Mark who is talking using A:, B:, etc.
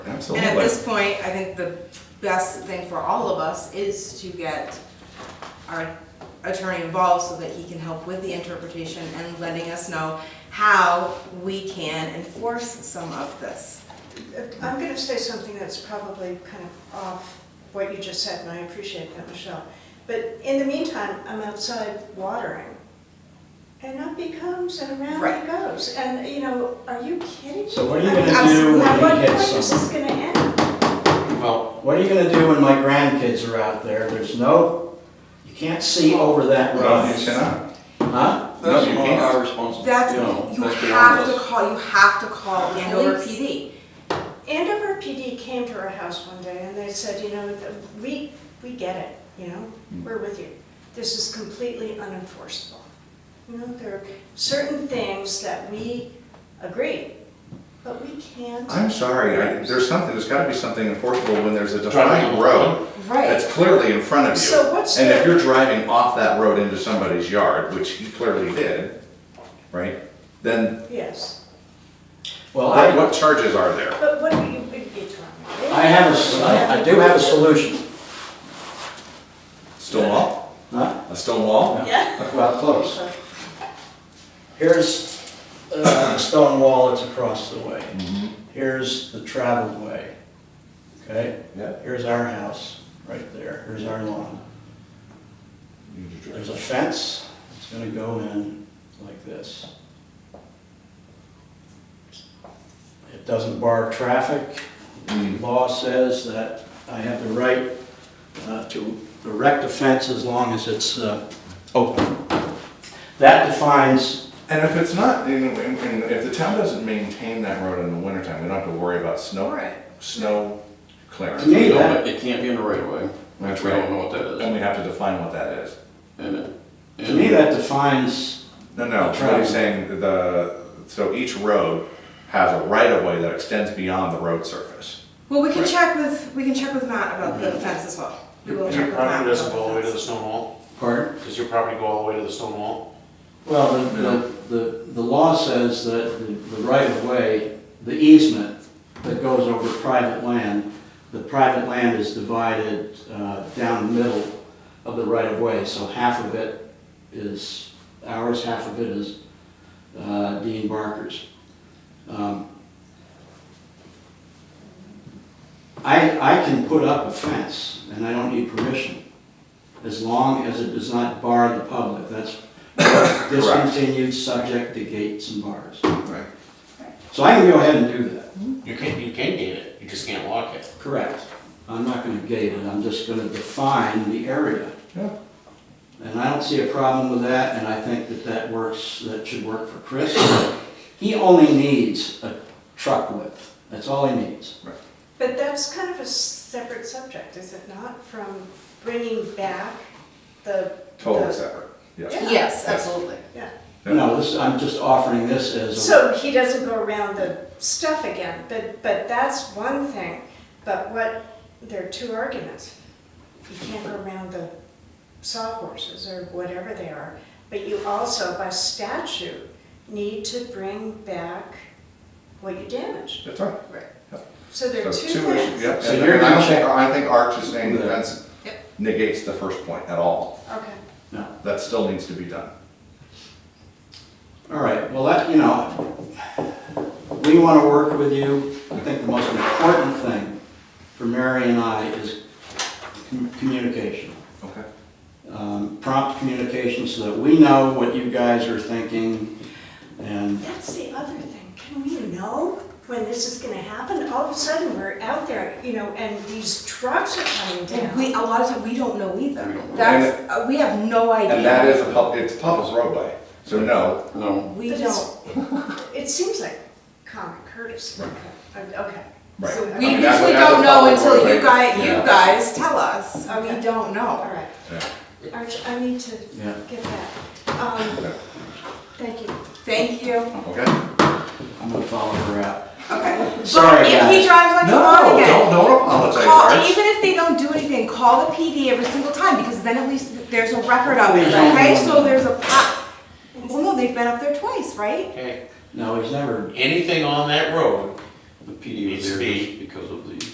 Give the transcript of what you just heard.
A: And at
B: absolutely.
A: this point, I think the best thing for all of us is to get our attorney involved so that he can help with the interpretation and letting us know how we can enforce some of this.
C: I'm going to say something that's probably kind of off what you just said, and I appreciate that, Michelle. But in the meantime, I'm outside watering, and up he comes and around
A: Right.
C: he goes. And, you know, are you kidding?
B: So what are you
C: I mean,
B: gonna
C: I'm-
B: do when
C: At
B: he
C: what point
B: hits
C: is this going to end?
B: Well, what are you gonna do when my grandkids are out there? There's no, you can't see over that
D: Well, you
B: road.
D: cannot.
B: Huh? No,
E: That's
B: you
E: not
B: can't.
E: our responsibility.
A: That's,
B: No,
A: you
E: that's beyond
A: have to
E: us.
A: call, you have to call Andover
C: Police.
A: PD.
C: Andover PD came to our house one day, and they said, you know, th- we, we get it, you know,
D: Mm.
C: we're with you. This is completely unenforceable. You know, there are certain things that we agree, but we can't.
D: I'm sorry, I- there's something, there's gotta be something enforceable when there's a defined road that's clearly in front of you.
C: So what's
D: And if
C: the-
D: you're driving off that road into somebody's yard, which he clearly did, right, then
C: Yes,
B: Well,
D: what
B: I,
D: what charges are there?
C: but what do you, it's wrong.
B: I have a s- I I do have a solution.
D: Stone wall?
B: Huh?
D: A stone wall?
C: Yeah.
B: Well, close. Here's uh, stone wall that's across the way. Here's the traveled way, okay?
D: Yeah.
B: Here's our house, right there, here's our lawn. There's a fence, it's gonna go in like this. It doesn't bar traffic. The Law says that I have the right uh, to erect a fence as long as it's uh, open. That defines,
D: And if it's not, and- and- and if the town doesn't maintain that road in the wintertime, we don't have to worry about snow, snow clearance.
B: To me,
D: We don't-
B: that-
E: It can't be in the right of way,
D: That's
E: which we
D: right.
E: don't know what that
D: And
E: is.
D: we have to define what that is.
E: And it-
B: to me, that defines,
D: No, no,
B: The
D: what
B: travel.
D: he's saying, the, so each road has a right of way that extends beyond the road surface.
A: Well, we can
D: Right.
A: check with, we can check with Matt about
E: Mm-hmm.
A: the fence as well. We will
F: Does
A: check
F: your
A: with Matt
F: property
A: about the
F: doesn't go all the way to the
A: fence.
F: stone wall?
B: pardon?
F: Does your property go all the way to the stone wall?
B: Well, the- the, the, the law says that the the right of way, the easement that goes over private land, the private land is divided uh, down the middle of the right of way, so half of it is ours, half of it is uh, Dean Barker's. Um, I, I can put up a fence, and I don't need permission, as long as it does not bar the public, that's discontinued, subject to gates and bars.
D: Right.
B: So I can go ahead and do that.
F: You can, you can gate it, you just can't lock it.
B: Correct. I'm not gonna gate it, I'm just gonna define the area.
D: Yeah.
B: And I don't see a problem with that, and I think that that works, that should work for Chris. He only needs a truck width, that's all he needs.
C: But that's kind of a separate subject, is it not, from bringing back the.
D: Totally
C: the-
D: separate, yes.
C: Yeah.
A: Yes, absolutely.
C: Yeah,
B: No, this, I'm just offering this as a,
C: so he doesn't go around the stuff again, but, but that's one thing, but what, there are two arguments. You can't go around the sawhorses or whatever they are, but you also, by statute, need to bring back what you damaged.
D: That's right.
C: So there
D: So
C: are two
D: two issues,
C: things.
D: yep.
B: So
D: And
B: you're
D: and I
B: gonna
D: don't think,
B: check-
D: I think Arch is saying the
B: Yeah.
D: fence
A: Yep.
D: negates the first point at all.
C: Okay.
B: no.
D: That still needs to be done.
B: All right, well, that, you know, we want to work with you. I think the most important thing for Mary and I is com- communication.
D: Okay.
B: Um, Prompt communication so that we know what you guys are thinking and,
C: That's the other thing, can we know when this is gonna happen? All of a sudden, we're out there, you know, and these trucks are coming
A: And
C: down.
A: we, a lot of times, we don't know either.
E: We don't know.
A: That's, uh, we have no idea.
D: And that is a pub, it's a public roadway, so no,
E: No,
A: We
C: But
A: don't.
C: it's- It seems like common courtesy, okay, okay.
D: right.
C: So
A: We
D: I mean,
A: usually
D: that's what- that's
A: don't
D: a
A: know
D: public
A: until
D: roadway.
A: you guys, you
D: Yeah.
A: guys tell us.
C: Okay.
A: We don't
C: All
A: know.
C: right,
D: Yeah.
C: Arch, I need to
B: Yeah.
C: get that. Um,
D: Yeah.
C: Thank you.
A: Thank you.
D: Okay.
B: I'm going to follow her out.
A: Okay.
B: Sorry,
A: If he
B: guys.
A: drives like a
D: No,
A: log
D: don't,
A: again,
D: don't apologize,
A: call,
D: Arch.
A: even if they don't do anything, call the PD every single time because then at least there's a record of it,
B: Please don't.
A: okay? So there's a pop. Well, no, they've been up there twice, right?
F: Okay,
B: No, he's never,
F: anything on that road
E: The PD
F: Needs
E: was
F: to
E: there
F: be.
E: just because of the